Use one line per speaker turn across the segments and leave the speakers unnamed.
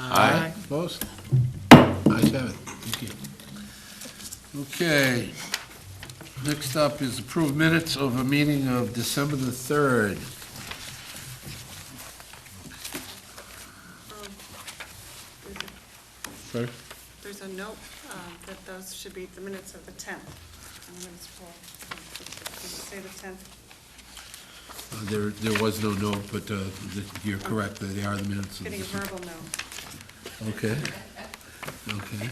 Aye.
Opposed? Ayes have it. Thank you. Okay. Next up is approved minutes of a meeting of December the 3rd. Sorry?
There's a note um, that those should be the minutes of the 10th. And the minutes for- Did you say the 10th?
Uh, There, there was no note, but uh, th- you're correct, that they are the minutes. of
Getting a
December.
verbal note.
Okay. Okay.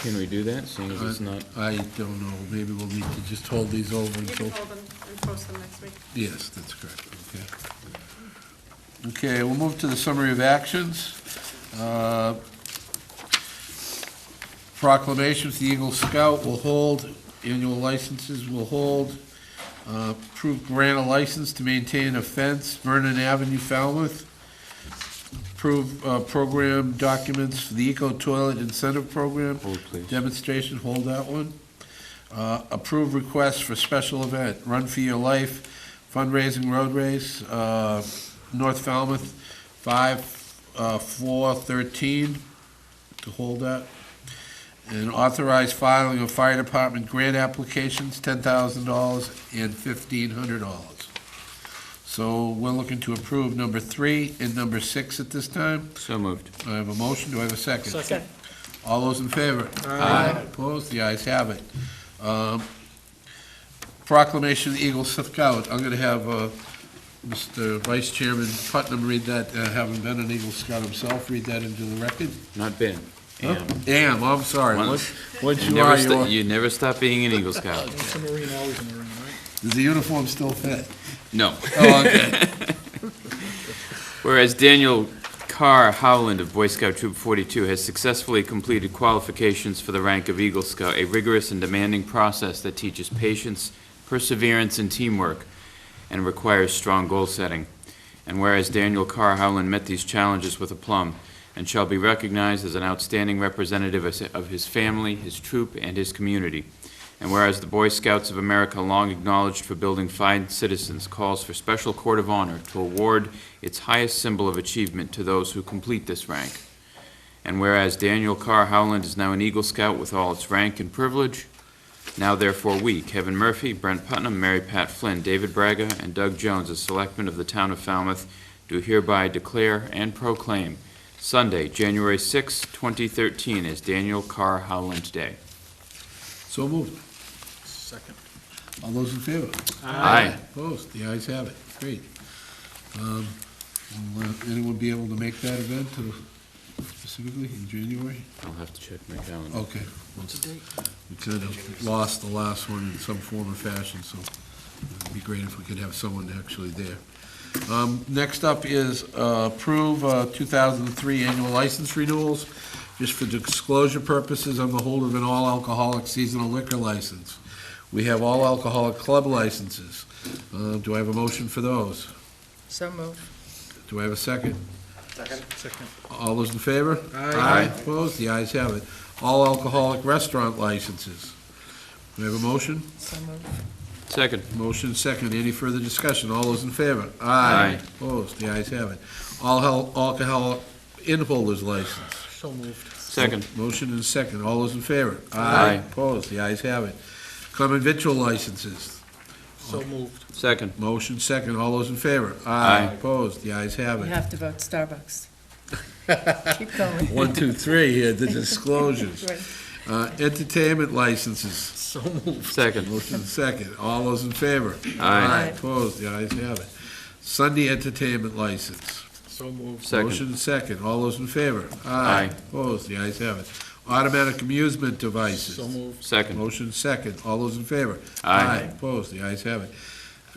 Can we do that, seeing as it's not?
I don't know, maybe we'll need to just hold these over
You can
until,
hold them and post them next week.
yes, that's correct, okay. Okay, we'll move to the summary of actions. Uh, Proclamations, the Eagle Scout will hold, annual licenses will hold, Uh, approved grant a license to maintain a fence, Vernon Avenue, Falmouth. Approved uh, program documents, for the Eco Toilet Incentive Program.
Hold, please.
Demonstration, hold that one. Uh, Approve request for special event, Run for Your Life fundraising road race, uh, North Falmouth, 5/4/13, to hold that. And authorize filing of fire department grant applications, $10,000 and $1,500. So we're looking to approve number three and number six at this time.
So moved.
I have a motion, do I have a second?
Second.
All those in favor? Aye. Opposed? The ayes have it. Um, Proclamation of the Eagle Scout. I'm going to have uh, Mr. Vice Chairman Putnam read that, uh, having been an Eagle Scout himself, read that into the record.
Not Ben.
Huh?
Am.
Am, I'm sorry.
Once-
What you
You
are,
never,
you
sto-
are.
you never stop being an Eagle Scout.
Once a Marine, always a Marine, right?
Does the uniform still fit?
No.
Oh, okay.
Whereas Daniel Carr Howland of Boy Scout Troop 42 has successfully completed qualifications for the rank of Eagle Scout, a rigorous and demanding process that teaches patience, perseverance, and teamwork, and requires strong goal setting. And whereas Daniel Carr Howland met these challenges with aplomb, and shall be recognized as an outstanding representative of s- of his family, his troop, and his community. And whereas the Boy Scouts of America, long acknowledged for building fine citizens, calls for special court of honor to award its highest symbol of achievement to those who complete this rank. And whereas Daniel Carr Howland is now an Eagle Scout with all its rank and privilege, now therefore we, Kevin Murphy, Brent Putnam, Mary Pat Flynn, David Braga, and Doug Jones, as selectmen of the town of Falmouth, do hereby declare and proclaim Sunday, January 6, 2013, as Daniel Carr Howland Day.
So moved.
Second.
All those in favor?
Aye.
Opposed? The ayes have it. Great. Um, will, uh, Anyone be able to make that event uh, specifically in January?
I'll have to check my calendar.
Okay. We kind of lost the last one in some form or fashion, so it'd be great if we could have someone actually there. Um, Next up is uh, approve uh, 2003 annual license renewals. Just for disclosure purposes, I'm the holder of an all-alcoholic seasonal liquor license. We have all-alcoholic club licenses. Uh, Do I have a motion for those?
So moved.
Do I have a second?
Second.
All those in favor? Aye. Opposed? The ayes have it. All alcoholic restaurant licenses. Do we have a motion?
So moved.
Second.
Motion second. Any further discussion? All those in favor?
Aye.
Opposed? The ayes have it. All hel- alcohol in holders license.
So moved.
Second.
Motion and second. All those in favor?
Aye.
Opposed? The ayes have it. Common victual licenses.
So moved.
Second.
Motion second. All those in favor?
Aye.
Opposed? The ayes have
You
it.
have to vote Starbucks. Keep going.
One, two, three here, the disclosures.
Right.
Uh, Entertainment licenses.
So moved.
Second.
Motion second. All those in favor?
Aye.
Opposed? The ayes have it. Sunday entertainment license.
So moved.
Second.
Motion second. All those in favor?
Aye.
Opposed? The ayes have it. Automatic amusement devices.
So moved.
Second.
Motion second. All those in favor?
Aye.
Opposed? The ayes have it.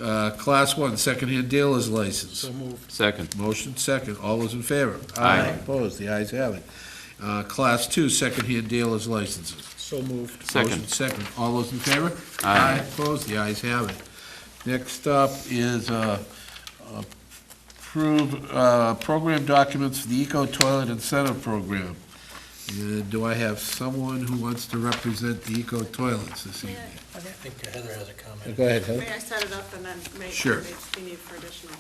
Uh, Class one, secondhand dealer's license.
So moved.
Second.
Motion second. All those in favor?
Aye.
Opposed? The ayes have it. Uh, Class two, secondhand dealer's licenses.
So moved.
Second.
Motion second. All those in favor?
Aye.
Opposed? The ayes have it. Next up is uh, approve uh, program documents for the Eco Toilet Incentive Program. And do I have someone who wants to represent the Eco Toilets this evening?
I think Heather has a comment.
Go ahead,
May I set it up and then make,
Sure.
if you need for additional.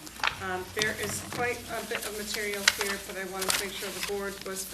Um, There is quite a bit of material here, but I wanted to make sure the board was